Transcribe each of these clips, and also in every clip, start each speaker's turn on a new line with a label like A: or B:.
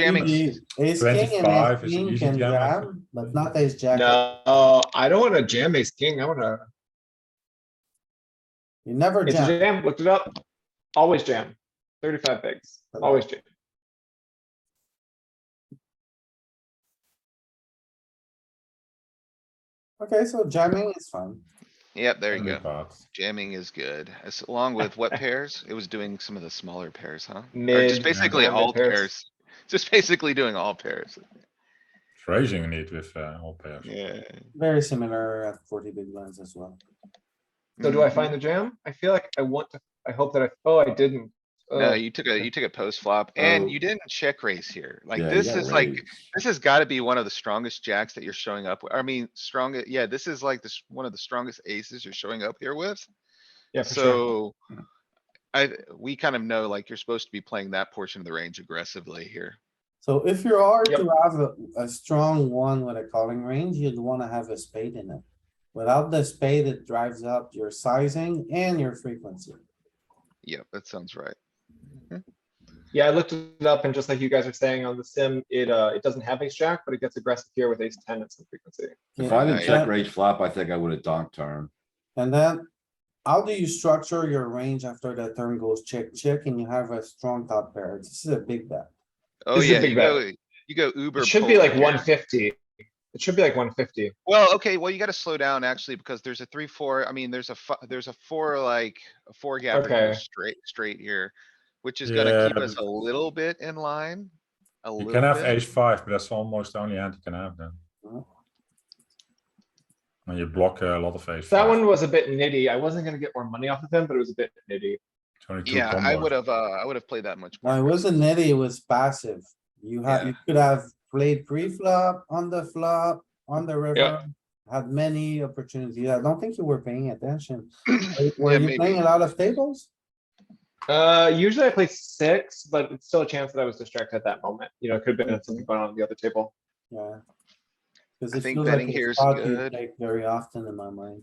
A: Jamming,
B: Ace king and
C: 25
B: ace
C: is an
B: king
C: easy
B: can
C: jam, I think.
B: jam, but not ace jack.
D: No, I don't wanna jam ace king, I wanna,
B: You never
D: it's a
B: jam.
D: jam, looked it up, always jam, thirty-five bigs, always jam.
B: Okay, so jamming is fine.
A: yep, there you
C: Only
A: go.
C: cards.
A: Jamming is good, as along with what pairs? It was doing some of the smaller pairs, huh? Or
D: Mid,
A: just basically
D: mid
A: all
D: pairs.
A: pairs, just basically doing all pairs,
C: It's raising need with uh, all pairs.
A: yeah.
B: Very similar at forty big blinds as well.
D: So do I
A: Mhm.
D: find the jam? I feel like I want to, I hope that I, oh, I didn't.
A: No,
D: Uh,
A: you took a, you took a post flop and
D: Oh.
A: you didn't check raise here. Like
E: Yeah, you
A: this
E: got
A: is like,
E: raised.
A: this has gotta be one of the strongest jacks that you're showing up. with. I mean, strongest, yeah, this is like this, one of the strongest aces you're showing up here with.
D: Yeah, for sure.
A: So I, we kind of know like you're supposed to be playing that portion of the range aggressively here.
B: So if you are
D: Yep.
B: to have a, a strong one with a calling range, you'd wanna have a spade in it. Without the spade, it drives up your sizing and your frequency.
A: Yeah, that sounds right.
D: Yeah, I looked it up and just like you guys are saying on the sim, it, uh, it doesn't have ace jack, but it gets aggressive here with ace ten at some frequency.
E: If I didn't
A: Yeah.
E: check raise flop, I think I would have donked turn.
B: And then, how do you structure your range after the turn goes check, check, and you have a strong top pair? This is a big bet.
A: Oh,
D: This is a
A: yeah,
D: big
A: you
D: bet.
A: go, you go uber.
D: It should be
A: polar
D: like
A: here.
D: one fifty. It should be like one fifty.
A: Well, okay, well, you gotta slow down actually, because there's a three, four, I mean, there's a, fi- there's a four, like, a four gap
D: Okay.
A: here straight, straight here. Which is gonna
C: Yeah,
A: keep us
C: but-
A: a little bit in line. A
C: You can
A: little
C: have
A: bit.
C: ace five, but that's almost the only hand you can have then.
B: Mhm.
C: And you block uh, a lot of ace.
D: That
C: five.
D: one was a bit nitty. I wasn't gonna get more money off of him, but it was a bit nitty.
C: It's only two
A: Yeah, I
C: combos.
A: would have, uh, I would have played that much
B: Now, it
A: more.
B: wasn't nitty, it was passive. You have,
A: Yeah.
B: you could have played pre-flop, on the flop, on the river. Had many opportunities. I don't think you were paying attention. Were
A: Yeah,
B: you
A: maybe.
B: playing a lot of tables?
D: Uh, usually I play six, but it's still a chance that I was distracted at that moment. You know, it could have been something going on at the other table.
B: Yeah. Cause
A: I
B: it
A: think
B: feels like
A: betting
B: a
A: here is
B: spot you
A: good.
B: take very often in my mind.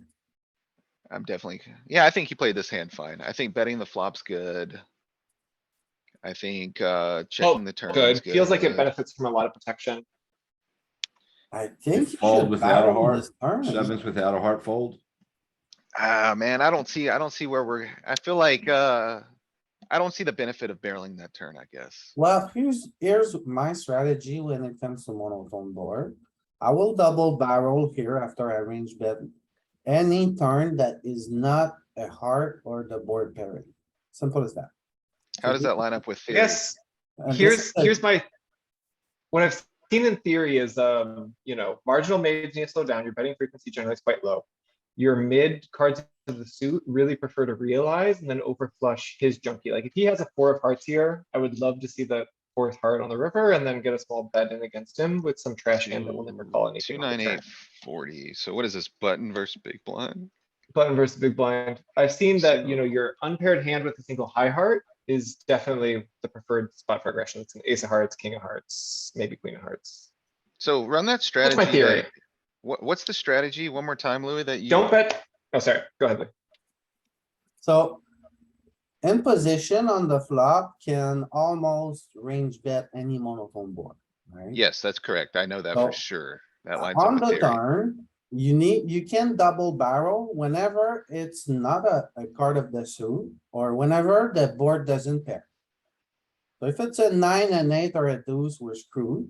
A: I'm definitely, yeah, I think you played this hand fine. I think betting the flop's good. I think, uh, checking the turn is
D: Oh, Good.
A: good.
D: Feels like it benefits from a lot of protection.
B: I think. you
E: fold
B: should
E: without a
B: barrel
E: heart,
B: this turn.
E: Sevens without a heart fold.
A: Ah, man, I don't see, I don't see where we're, I feel like, uh, I don't see the benefit of barreling that turn, I guess.
B: Well, here's, here's my strategy when it comes to monotone board. I will double barrel here after I range bet. Any turn that is not a heart or the board pairing. Simple as that.
A: How does that line up with theory?
D: Yes,
B: And this
D: here's,
B: is a-
D: here's my, what I've seen in theory is, um, you know, marginal maids need to slow down, your betting frequency generally is quite low. Your mid cards of the suit really prefer to realize and then over flush his junkie, like if he has a four of hearts here, I would love to see the fourth heart on the river and then get a small bet in against him with some trash hand that will never call
A: Two
D: anything. on
A: nine
D: the turn.
A: eight forty, so what is this button versus big blind?
D: Button versus big blind, I've seen that, you know, your unpaired hand with a single high heart is definitely the preferred spot for aggression, it's an ace of hearts, king of hearts, maybe queen of hearts.
A: So run that
D: That's
A: strategy.
D: my theory.
A: that- What, what's the strategy? One more time, Louis, that you?
D: Don't bet. Oh, sorry. Go ahead. Lee.
B: So. In position on the flop can almost range bet any monotone board, right?
A: Yes, that's correct. I know that for
B: No.
A: sure. That lines
B: On
A: up
B: the
A: with theory.
B: turn, you need, you can double barrel whenever it's not a, a card of the suit or whenever the board doesn't pair. So if it's a nine and eight or a deuce, we're screwed.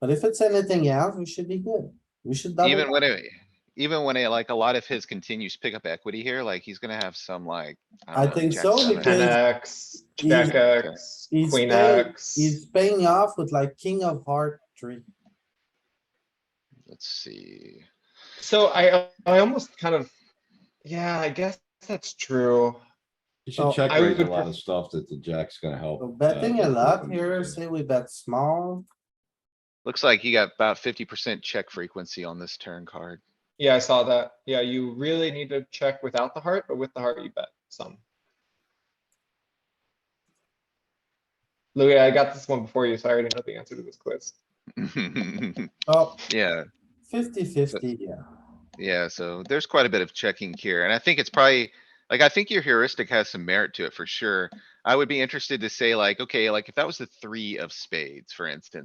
B: But if it's anything else, we should be good. We should
A: Even
B: double,
A: when it, even when it, like, a lot of his continues pick up equity here, like, he's gonna have some like.
B: I
A: don't know,
B: think
A: jack
B: so,
A: seven.
B: because-
D: Ten X,
B: He's-
D: Jack X,
B: he's
D: Queen
B: paying-
D: X.
B: he's paying off with like king of heart three.
A: Let's see.
D: So I, I almost kind of, yeah, I guess that's true.
E: You
B: Oh,
E: should check
D: I
E: raise a
D: would
E: lot
D: pref-
E: of stuff that the jack's gonna help.
B: So
E: uh,
B: betting a
E: get
B: lot
E: open.
B: here, say we bet small,
A: Looks like you got about fifty percent check frequency on this turn card.
D: Yeah, I saw that. Yeah, you really need to check without the heart, but with the heart, you bet some. Louis, I got this one before you, so I already know the answer to this quiz.
B: oh,
A: Yeah,
B: fifty fifty, yeah.
A: yeah, so there's quite a bit of checking here, and I think it's probably, Like, I think your heuristic has some merit to it for sure. I would be interested to say like, okay, like if that was the three of spades, for instance.